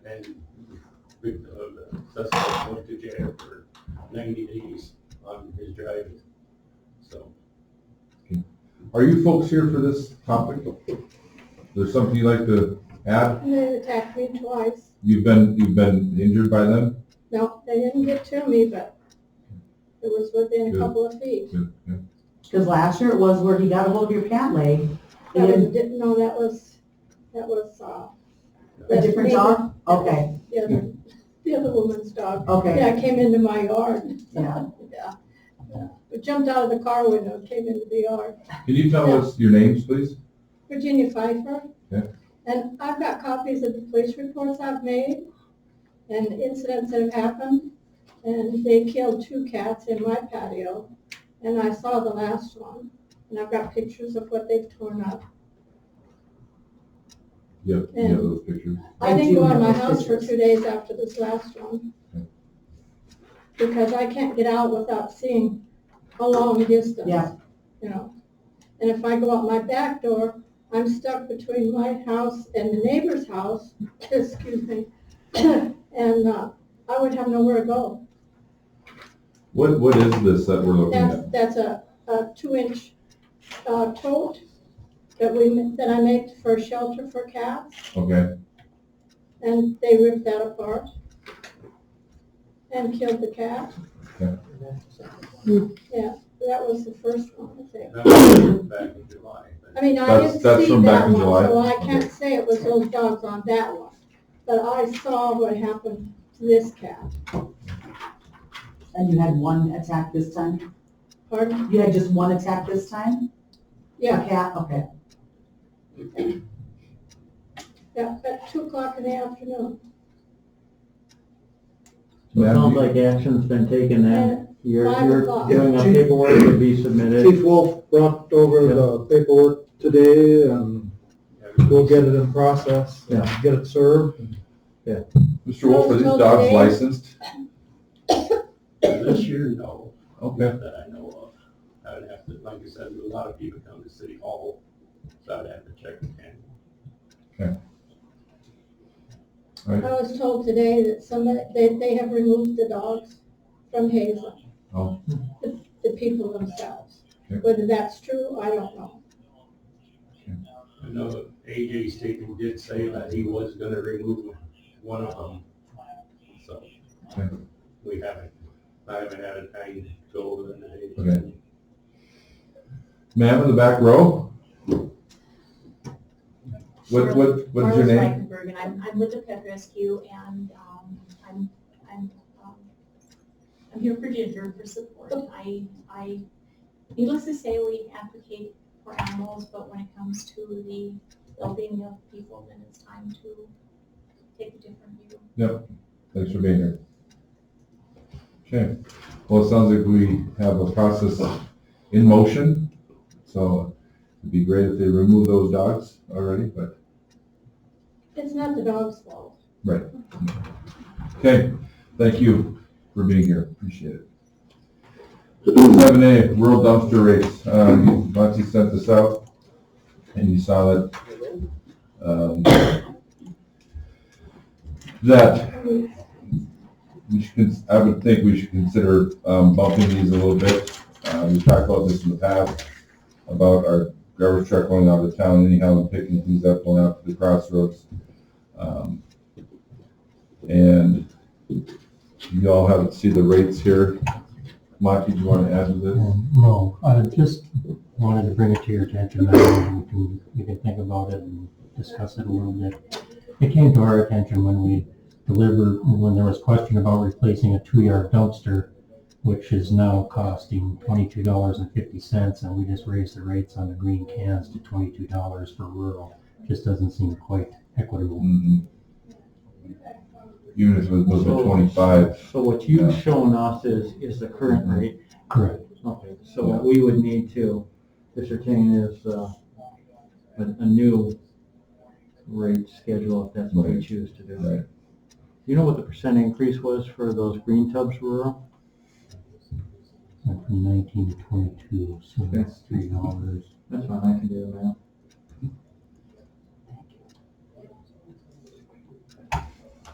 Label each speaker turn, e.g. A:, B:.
A: and with, uh, suspect went to jail for ninety days on his driving. So,
B: Are you folks here for this topic? There's something you'd like to add?
C: And they attacked me twice.
B: You've been, you've been injured by them?
C: No, they didn't get to me, but it was within a couple of feet.
B: Yeah.
D: Because last year it was where he got a hold of your pant leg.
C: That was, didn't know that was, that was, uh.
D: A different
C: the-
D: dog? Okay,
C: The other, the other woman's dog.
D: okay,
C: Yeah, came into my yard.
D: yeah.
C: Yeah. yeah. It Jumped out of the car window, came into the yard.
B: Can you tell us your names, please?
C: Virginia Pfeiffer.
B: Yeah.
C: And I've got copies of the police reports I've made and incidents that have happened. And they killed two cats in my patio, and I saw the last one. And I've got pictures of what they've torn up.
B: You have, you have those pictures.
C: I
D: I
C: didn't
D: do
C: go out of
D: have
C: my
D: those
C: house for
D: pictures.
C: two days after this last one.
B: Okay.
C: Because I can't get out without seeing a long distance.
D: Yeah.
C: You know, and if I go out my back door, I'm stuck between my house and the neighbor's house, excuse me. And, uh, I would have nowhere to go.
B: What, what is this that we're looking
C: That's,
B: at?
C: that's a, a two-inch, uh, tote that we, ma- that I make for shelter for cats.
B: Okay,
C: And they ripped that apart and killed the cat.
B: Yeah.
C: Yeah, that was the first one, I think.
A: that was back in July, but
C: I mean, I
B: That's-
C: didn't see
B: that's from back
C: that
B: in
C: one,
B: July?
C: so I
B: Okay.
C: can't say it was those dogs on that one. But I saw what happened to this cat.
D: And you had one attack this time?
C: Pardon?
D: You had just one attack this time?
C: Yeah,
D: A cat, okay.
C: yeah, at two o'clock in the afternoon.
E: So it
B: Yeah.
E: sounds like action's been taken then.
C: And
E: You're,
C: Five
E: you're
C: o'clock.
E: doing a
F: Chief-
E: paperwork to be submitted.
F: Chief Wolf brought over the paperwork today and we'll get it in process, and get it served.
B: Mr. Wolf, are these dogs licensed?
A: this year, no,
B: Okay,
A: that I know of. I would have to, like I said, a lot of people come to City Hall, so I'd have to check the handbook.
C: I was told today that somebody, they, they have removed the dogs from Hazel.
B: Oh.
C: The the people themselves.
B: Okay.
C: Whether that's true, I don't know.
A: I know AJ Statham did say that he was gonna remove one of them, so.
B: Okay.
A: We haven't, I haven't had a time to go over the name.
B: Okay. ma'am in the back row? What, what, what's your
G: Marla
B: name?
G: Schweikenberg, and I'm, I'm with the Pet Rescue, and, um, I'm, I'm, um, I'm here for Ginger for support. I, I, needless to say, we advocate for animals, but when it comes to the well-being of people, then it's time to take a different view.
B: Yep, thanks for being here. Okay, well, it sounds like we have a process in motion, so it'd be great if they remove those dogs already, but,
C: It's not the dog's fault.
B: okay, thank you for being here, appreciate it. Seven A, rural dumpster rates, uh, Monty sent this out, and you saw that, um, that we should, cons- I would think we should consider um, bumping these a little bit. Uh, we talked about this in the past, about our garbage truck going out of town anyhow and picking things up, going out to the crossroads. Um, And you all have, see the rates here. Monty, do you want to add to this?
E: No, I just wanted to bring it to your attention, and you can, you can think about it and discuss it a little bit. It came to our attention when we delivered, when there was question about replacing a two-yard dumpster, which is now costing twenty-two dollars and fifty cents, and we just raised the rates on the green cans to twenty-two dollars for rural. Just doesn't seem quite equitable.
B: Mhm. Even if it was at
H: So-
B: twenty-five,
H: So what
B: Yeah. Mm-hmm.
H: you've shown us is, is the current rate.
E: Correct.
H: Okay, so what we would need to ascertain is, uh, a, a new rate schedule, if that's what we
B: Right.
H: choose to do.
B: Right.
H: Do you know what the percent increase was for those green tubs rural?
E: Went from nineteen to twenty-two, so that's three dollars.
H: That's fine, I can do the math.